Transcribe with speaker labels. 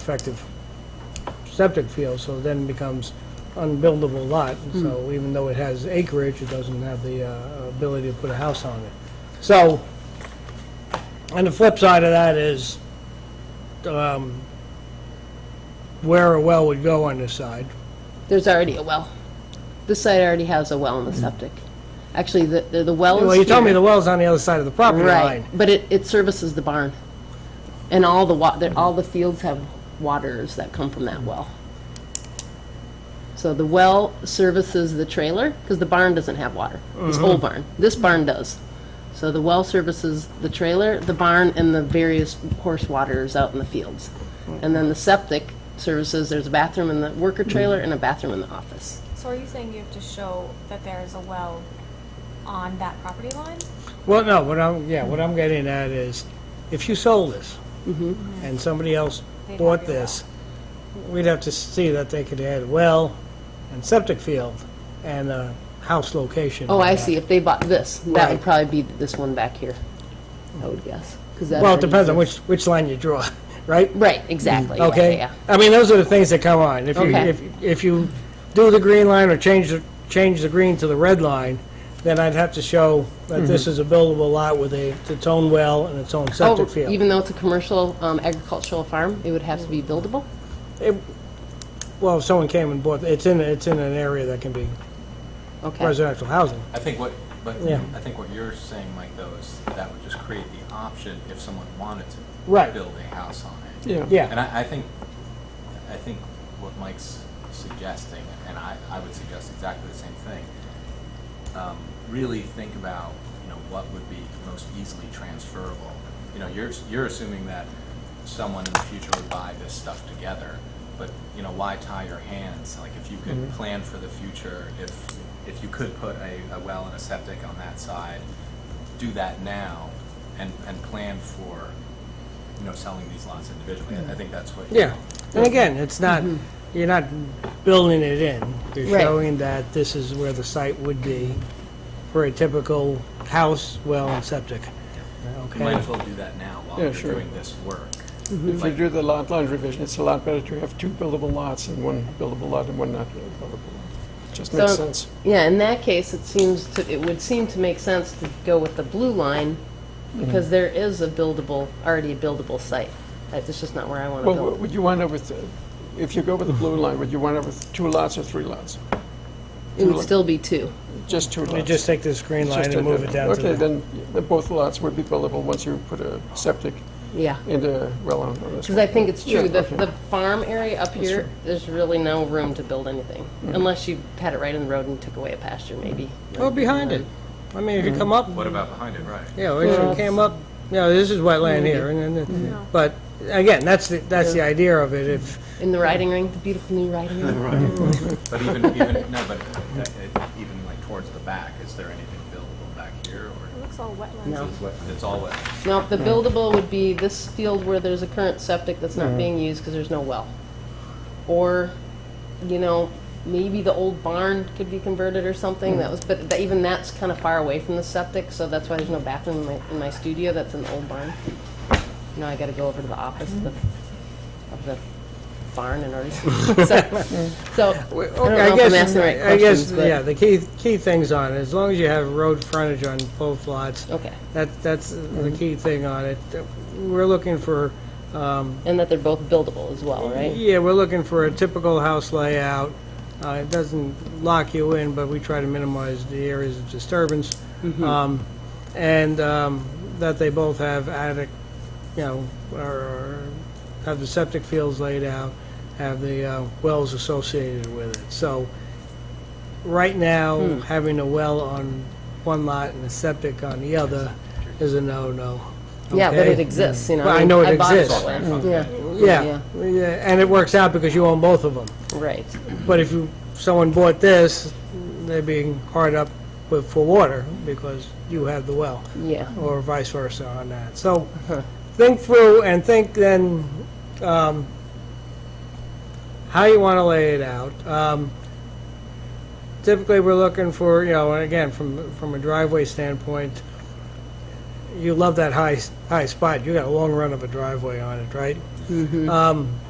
Speaker 1: effective septic field, so then becomes unbuildable lot.
Speaker 2: Hmm.
Speaker 1: So even though it has acreage, it doesn't have the uh, ability to put a house on it. So, and the flip side of that is um, where a well would go on this side.
Speaker 2: There's already a well. This site already has a well in the septic. Actually, the, the the well is
Speaker 1: Mm. Well, you told me
Speaker 2: here.
Speaker 1: the well's on the other side of the property
Speaker 2: Right,
Speaker 1: line.
Speaker 2: but it, it services the barn. And all the wa,
Speaker 1: Mm.
Speaker 2: that- all the fields have waters that come from that well. So the well services the trailer, because the barn doesn't have water. This
Speaker 1: Mm-hmm.
Speaker 2: old barn, this barn does. So the well services the trailer, the barn, and the various horse waters out in the fields. And then the septic services, there's a bathroom in the
Speaker 1: Mm.
Speaker 2: worker trailer and a bathroom in the office.
Speaker 3: So are you saying you have to show that there is a well on that property line?
Speaker 1: Well, no, what I'm, yeah, what I'm getting at is, if you sold this, and somebody else
Speaker 3: They'd
Speaker 1: bought
Speaker 3: have your
Speaker 1: this, we'd have to see that they could add well and septic field and a house location.
Speaker 2: Oh,
Speaker 1: on
Speaker 2: I
Speaker 1: that.
Speaker 2: see, if they bought this, that
Speaker 1: Right.
Speaker 2: would probably be this one back here, I would guess. 'cause that
Speaker 1: Well, it
Speaker 2: already
Speaker 1: depends on
Speaker 2: exists.
Speaker 1: which, which line you draw, right?
Speaker 2: Right, exactly. yeah,
Speaker 1: Okay?
Speaker 2: yeah,
Speaker 1: I mean, those are the things that come on. If you,
Speaker 2: Okay.
Speaker 1: if, if you do the green line or change the, change the green to the red line, then I'd have to show that this is a buildable lot with a, its own well and its own
Speaker 2: yeah.
Speaker 1: septic
Speaker 2: Mm-hmm. Oh,
Speaker 1: field.
Speaker 2: even though it's a commercial um, agricultural farm, it would have to be buildable?
Speaker 1: Well, if someone came and bought, it's in, it's in an area that can be
Speaker 2: Okay.
Speaker 1: residential housing.
Speaker 4: I think what, but
Speaker 1: Yeah.
Speaker 4: I think what you're saying, Mike, though, is that would just create the option if someone wanted to
Speaker 1: Right.
Speaker 4: build a house on it.
Speaker 1: Yeah,
Speaker 4: And I, I think, I think what Mike's suggesting, and I, I would suggest exactly the same thing. Um, really think about, you know, what would be most easily transferable. You know, you're, you're assuming that someone in the future would buy this stuff together, but, you know, why tie your hands? Like, if you could
Speaker 5: Mm-hmm.
Speaker 4: plan for the future, if, if you could put a, a well and a septic on that side, do that now and, and plan for, you know, selling these lots individually. I I think that's what.
Speaker 1: yeah. Mm-hmm. And again, it's not, you're not building it in. You're
Speaker 2: Right.
Speaker 1: showing that this is where the site would be for a typical house, well, and septic.
Speaker 4: You might
Speaker 1: Okay?
Speaker 4: as well do that now while
Speaker 5: Yeah,
Speaker 4: you're
Speaker 5: sure.
Speaker 4: doing this work.
Speaker 5: If you do the lot line revision, it's a lot better to have two buildable lots and one buildable lot and one not buildable lot. Just makes
Speaker 2: So-
Speaker 5: sense.
Speaker 2: Yeah, in that case, it seems to, it would seem to make sense to go with the blue line
Speaker 1: Mm-hmm.
Speaker 2: because there is a buildable, already a buildable site. That's just not where I want to
Speaker 5: Well,
Speaker 2: build.
Speaker 5: w- would you wind up with, uh, if you go with the blue line, would you wind up with two lots or three lots?
Speaker 2: It would
Speaker 5: look-
Speaker 2: still be two.
Speaker 5: Just two lots?
Speaker 1: You just take this green
Speaker 5: It's
Speaker 1: line
Speaker 5: just a-
Speaker 1: and move it down to the,
Speaker 5: Okay, then the- both lots would be buildable once you put a septic
Speaker 2: Yeah.
Speaker 5: and a well on on this
Speaker 2: Because I
Speaker 5: one.
Speaker 2: think it's true,
Speaker 5: Yeah,
Speaker 2: the,
Speaker 5: okay.
Speaker 2: the farm area up here,
Speaker 5: true.
Speaker 2: there's really no room to build anything. Unless you had it right in the road and took away a pasture maybe.
Speaker 1: oh, behind it. I mean, if you come up,
Speaker 4: What about behind it, right?
Speaker 1: Mm-hmm. yeah, Mm-hmm. well, if you came up, you know, this is wetland here, and then, it- but, again, that's the, that's the idea of it, if,
Speaker 2: In the riding ring, the beautiful new riding ring.
Speaker 4: But even, even, no, but uh, uh, even like towards the back, is there anything buildable back here
Speaker 3: It
Speaker 4: or
Speaker 3: looks all wetlands.
Speaker 2: No.
Speaker 4: is what- it's all wet?
Speaker 2: No, the buildable would be this field where there's a current septic that's not being used because there's no well. Or, you know, maybe the old barn could be converted or something,
Speaker 1: Mm.
Speaker 2: that was, but tha- even that's kind of far away from the septic, so that's why there's no bathroom in my, in my studio, that's an old barn. Now I gotta go over to the office of the, of the barn in order to, so, so, I don't
Speaker 1: Okay,
Speaker 2: know if I'm asking the right
Speaker 1: I guess,
Speaker 2: questions,
Speaker 1: yeah,
Speaker 2: but,
Speaker 1: the key, key things on it, as long as you have road frontage on both lots,
Speaker 2: okay.
Speaker 1: that, that's the key thing on it. We're looking for, um,
Speaker 2: And that they're both buildable as well, right?
Speaker 1: yeah, we're looking for a typical house layout. Uh, It doesn't lock you in, but we try to minimize the areas of disturbance.
Speaker 2: Mm-hmm.
Speaker 1: Um, And um, that they both have attic, you know, or have the septic fields laid out, have the uh, wells associated with it. So right now,
Speaker 2: Hmm.
Speaker 1: having a well on one lot and a septic on the other is a no-no.
Speaker 2: Yeah, but
Speaker 1: okay?
Speaker 2: it exists, you know.
Speaker 1: Well, I know it
Speaker 2: bought this
Speaker 1: exists. Mm.
Speaker 2: land.
Speaker 4: Okay.
Speaker 2: Yeah.
Speaker 1: Yeah, yeah, and it works out because you own both of them.
Speaker 2: Right.
Speaker 1: But if you, someone bought this, they're being hard up with, for water because you have the well,
Speaker 2: Yeah.
Speaker 1: or vice versa on that. So think through and think then um, how you want to lay it out. Um, Typically, we're looking for, you know, and again, from, from a driveway standpoint, you love that high, high spot. You got a long run of a driveway on it, right? Um,